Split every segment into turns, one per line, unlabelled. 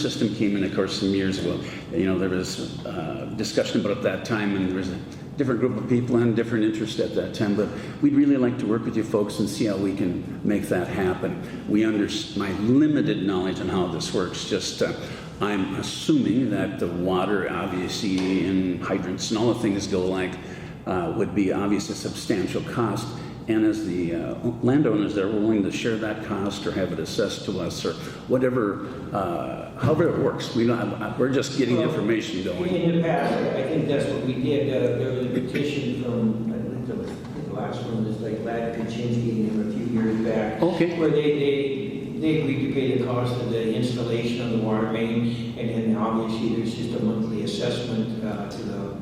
system came in, of course, some years ago. You know, there was uh, discussion about it at that time, and there was a different group of people and different interest at that time. But we'd really like to work with you folks and see how we can make that happen. We under my limited knowledge on how this works. Just uh, I'm assuming that the water, obviously, and hydrants and all the things go like uh, would be obviously a substantial cost. And as the uh, landowners, they're willing to share that cost or have it assessed to us or whatever, uh, however it works. We don't, we're just getting information going.
In the past, I think that's what we did, uh, there was a petition from, I think the the last one was like Vlad Kaczynski and him a few years back.
Okay.
Where they, they, they agreed to pay the cost of the installation of the water main, and then obviously there's just a monthly assessment uh, to the,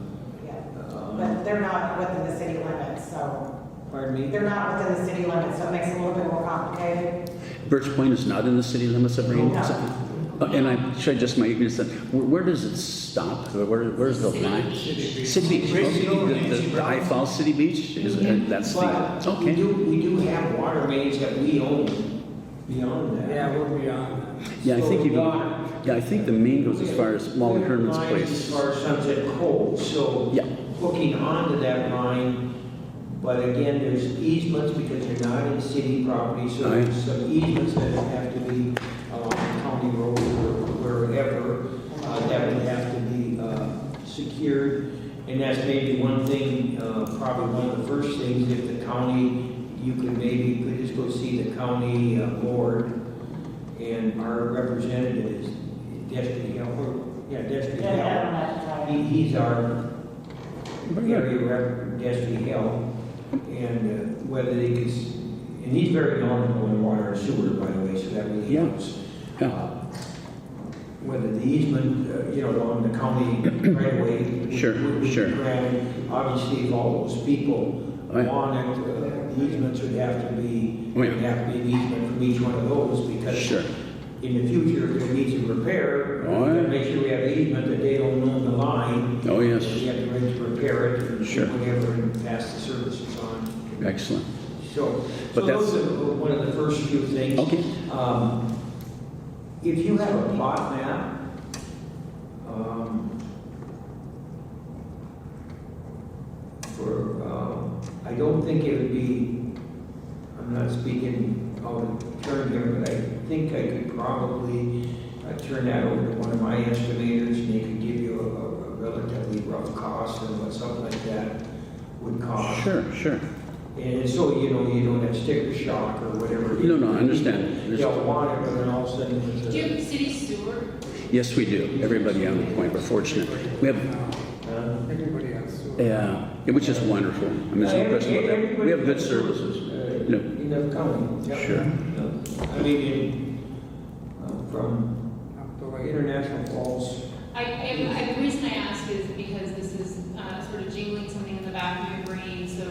Yeah,
uh,
But they're not within the city limits, so,
pardon me?
they're not within the city limits, so it makes it a little bit more complicated.
Birch Point is not in the city limits of Rain.
No.
is it? Uh, And I, should I just my ignorance, that- where, where does it stop? Where, where's the line? City Beach. Okay, The, the, the High Falls City Beach, is, it- that's
But
the,
we
okay.
do, we do have water mains that we own beyond that.
Yeah, we're beyond that.
Yeah, I think
So
even,
water-
yeah, I think the main goes as far as Wally Herman's
Lines
place.
As far as Sunset Cove, so.
Yeah.
Hooking onto that line, but again, there's easements because you're not in city property, so
Aye.
there's some easements that have to be along county road or wherever, uh, that would have to be, uh, secured. And that's maybe one thing, uh, probably one of the first things, if the county, you could maybe, you could just go see the county uh, board and our representative is Destry Helper, yeah, Destry
They're
Helper.
not on that
He,
side.
he's our
Very good.
area rep, Destiny Hill, and uh, whether they could, s- and he's very knowledgeable in water and sewer, by the way, so that really
Yeah.
helps.
Yeah.
Uh, Whether the easement, uh, you know, on the county right away. would-
Sure,
would be
sure.
granted. Obviously, if all those people
Aye.
want it, uh, the easements would have to be,
Oh, yeah.
would have to be an easement from each one of those, because
Sure.
in the future, if there needs a repair,
Oh,
we
yeah.
gotta make sure we have the easement that they don't own the line.
Oh, yes.
We have the right to repair it and
Sure.
whatever and pass the services on.
Excellent.
So, so
But that's-
those are one of the first few things.
Okay.
Um, If you have a plot map, um, for, um, I don't think it would be, I'm not speaking out of turn here, but I think I could probably uh, turn that over to one of my estimators, and they could give you a- a a relatively rough cost and what something like that would cost.
Sure, sure.
And so, you know, you don't have sticker shock or whatever.
No, no, I understand.
They'll want it, but then all of a sudden it's
Do
a.
you have city sewer?
Yes, we do. Everybody on the point, we're fortunate. We have,
Huh?
Everybody else. so-
yeah, which is wonderful. I mean, there's no question about that. We have good services.
Uh,
No,
In the county. yeah.
Sure.
Yeah. I mean, in, uh, from
Up the way.
International Falls.
I, I, I- the reason I ask is because this is, uh, sort of jingling something in the back of your brain, so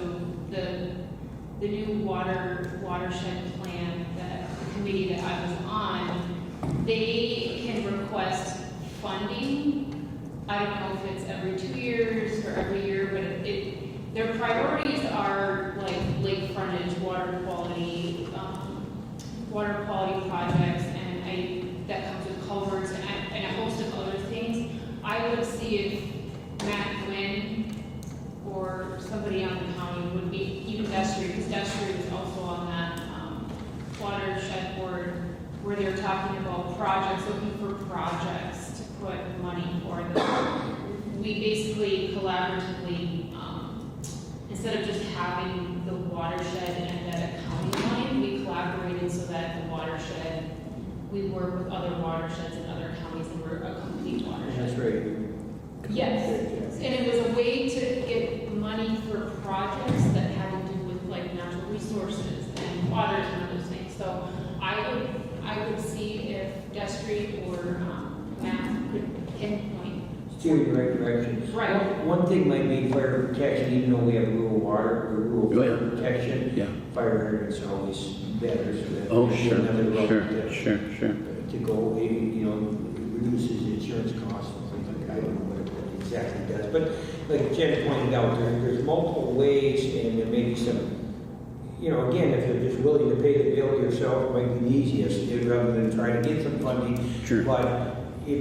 the, the new water, watershed plan that the committee that I was on, they can request funding. I don't know if it's every two years or every year, but it- it, their priorities are like lake frontage, water quality, um, water quality projects, and I, that comes with culverts and, I- and a host of other things. I would see if Matt Quinn or somebody on the county would be, even Destry, because Destry is also on that, um, watershed board, where they're talking about projects, looking for projects to put money for them. We basically collaboratively, um, instead of just having the watershed and that county line, we collaborated so that the watershed, we work with other watersheds and other counties, and we're a complete watershed.
That's right.
Yes, and it was a way to get money for projects that had to do with like natural resources and waters and those things. So I would, I would see if Destry or um, Matt could pinpoint.
Steer in the right direction.
Right.
One one thing might be fire protection, even though we have rural water, or rural
Oh, yeah.
fire protection,
yeah.
fire hydrants are always better, so that.
Oh,
there's
sure,
another road
sure,
to-
sure, sure.
to go, it, you know, reduces insurance costs and things like that. I don't know what it exactly does, but like Jen pointed out, there, there's multiple ways and there may be some, you know, again, if you're just willing to pay the bill yourself, it might be the easiest, rather than try to get some funding.
Sure.
But